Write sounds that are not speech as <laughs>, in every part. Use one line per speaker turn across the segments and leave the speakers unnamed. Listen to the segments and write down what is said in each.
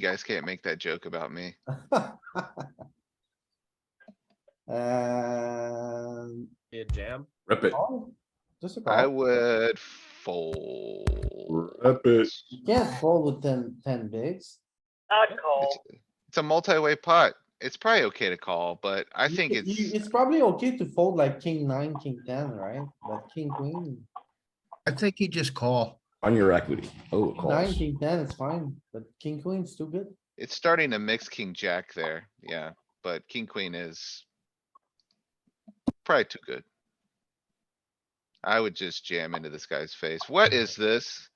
guys can't make that joke about me.
<laughs> Um,
Be a jam.
Rip it.
call? just a
I
Oh.
call.
would fold.
Rip it.
You can't fold with ten, ten bigs.
I'd call.
Oh.
It's it's a multi-way pot. It's probably okay to call, but I
You-
think
you-
it's,
It's probably okay to fold like king nine, king ten, right? But king queen,
I think he just call.
On your equity. Oh, it
king nine,
calls.
king ten is fine, but king queen's too good.
it's starting to mix king jack there, yeah, but king queen is probably too good. I would just jam into this guy's face. What is this?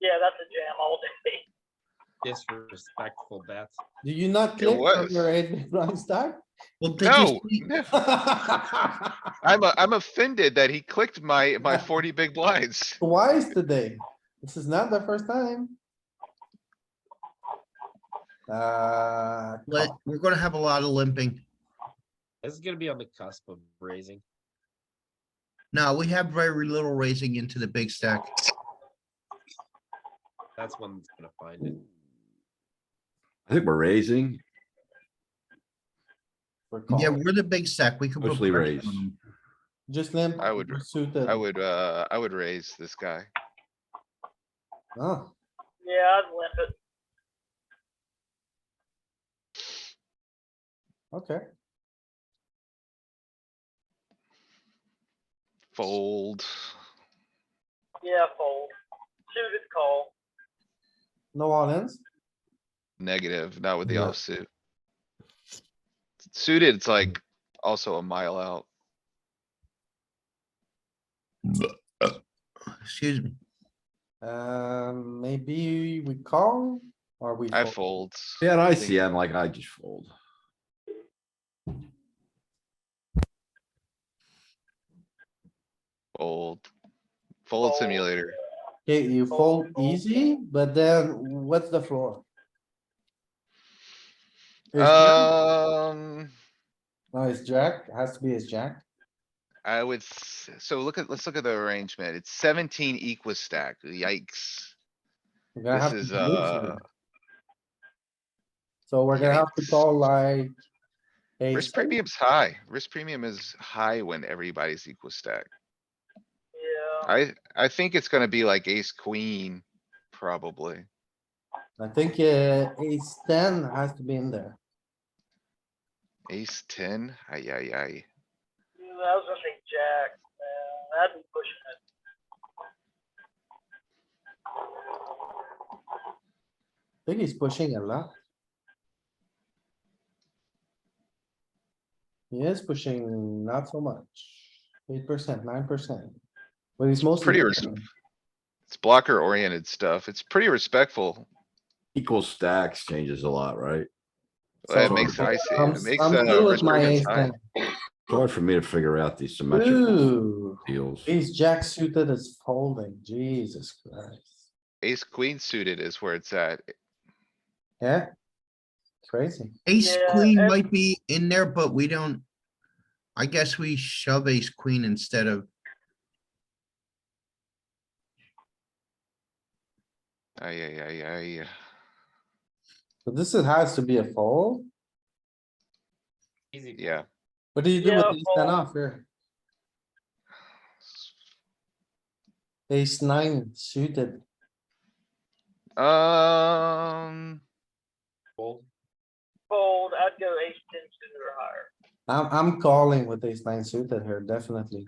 Yeah, that's a jam all day. <laughs>
Disrespectful bets.
Do you not click from
was.
your eight big blind stack?
Well, did you
No,
<laughs>
see- <laughs>
no, I'm, a- I'm offended that he clicked my, my forty big blinds.
Twice today. This is not the first time. Uh,
let-
Oh.
we're gonna have a lot of limping.
This is gonna be on the cusp of raising.
No, we have very little raising into the big stack.
That's when it's gonna find it.
I think we're raising.
we're
Yeah,
calling.
we're the big stack. We can. put
Mostly
pressure
raise.
on 'em.
Just limp.
I would-
we're Suited.
I would, uh, I would raise this guy.
Oh.
Yeah, I'd limp it.
Okay,
Fold.
Yeah, fold. Suited call.
no all ins.
Negative, not with the
Yeah.
offsuit. Suited, it's like also a mile out.
Excuse me.
Um, maybe we call or we.
I
fold?
fold.
Yeah, and I see. I'm like, I just fold.
Fold. Fold
Fold.
simulator.
Okay, you fold easy, but then what's the floor? Ace jack?
Um,
No, it's jack, It has to be his jack.
I would, s- so look at, let's look at the arrangement. It's seventeen equal stack. Yikes.
We're gonna
This
have to
is,
lose
uh,
here. So we're gonna have to call like. ace-
risk premium's high. Risk premium is high when everybody's equal stack.
Yeah.
I, I think it's gonna be like ace queen, probably.
I think uh, ace ten has to be in there.
Ace ten, ay, ay, ay.
Yeah, I was gonna say jack. Yeah, that'd be pushing it.
I think he's pushing a lot. He is pushing not so much, eight percent, nine percent. But he's mostly.
pretty
pushing.
It's blocker oriented stuff. It's pretty respectful.
Equal stacks changes a lot, right?
Uh, It
So-
makes
I'm-
icy,
I'm-
it makes
I'm
uh
good with
risk
my
premium
ace
high.
It's hard for me to figure out these
ten.
symmetrical
Ooh,
deals.
ace jack suited is folding, Jesus Christ.
Ace queen suited is where it's at.
Yeah? Crazy.
Ace
Yeah,
queen
and-
might be in there, but we don't. I guess we shove ace queen instead of,
Ay, ay, ay, ay.
So this is, has to be a fold.
Easy.
Yeah.
What do you do with
Yeah,
ace ten
fold.
off here? Ace nine suited.
Um,
Fold.
Fold, I'd go ace ten suited or higher.
I'm, I'm calling with ace nine suited here, definitely.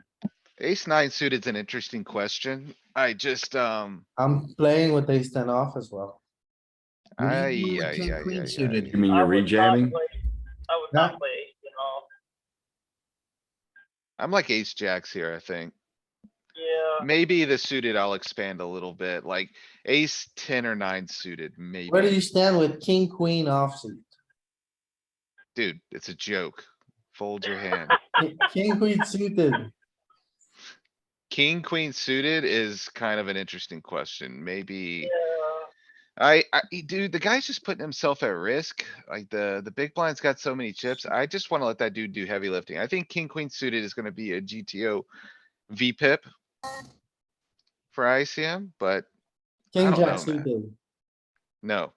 ace nine suited's an interesting question. I just, um,
I'm playing with ace ten off as well.
What do you
ay,
do with
ay,
king
ay,
queen
ay,
suited?
ay.
You mean
I
you're
would not
rejamming?
play- I would
Yeah.
not play ace ten off.
I'm like ace jacks here, I think.
Yeah,
Maybe the suited, I'll expand a little bit, like ace ten or nine suited,
Where do you
maybe.
stand with king, queen offsuit?
Dude, it's a joke. Fold your hand.
Ki- King, queen suited,
King, queen suited is kind of an interesting question. Maybe,
yeah.
I, I, e- dude, the guy's just putting himself at risk. Like the, the big blind's got so many chips. I just wanna let that dude do heavy lifting. I think king, queen suited is gonna be a GTO V pip. For ICM, but I
king,
don't know,
jack
man.
suited.
no,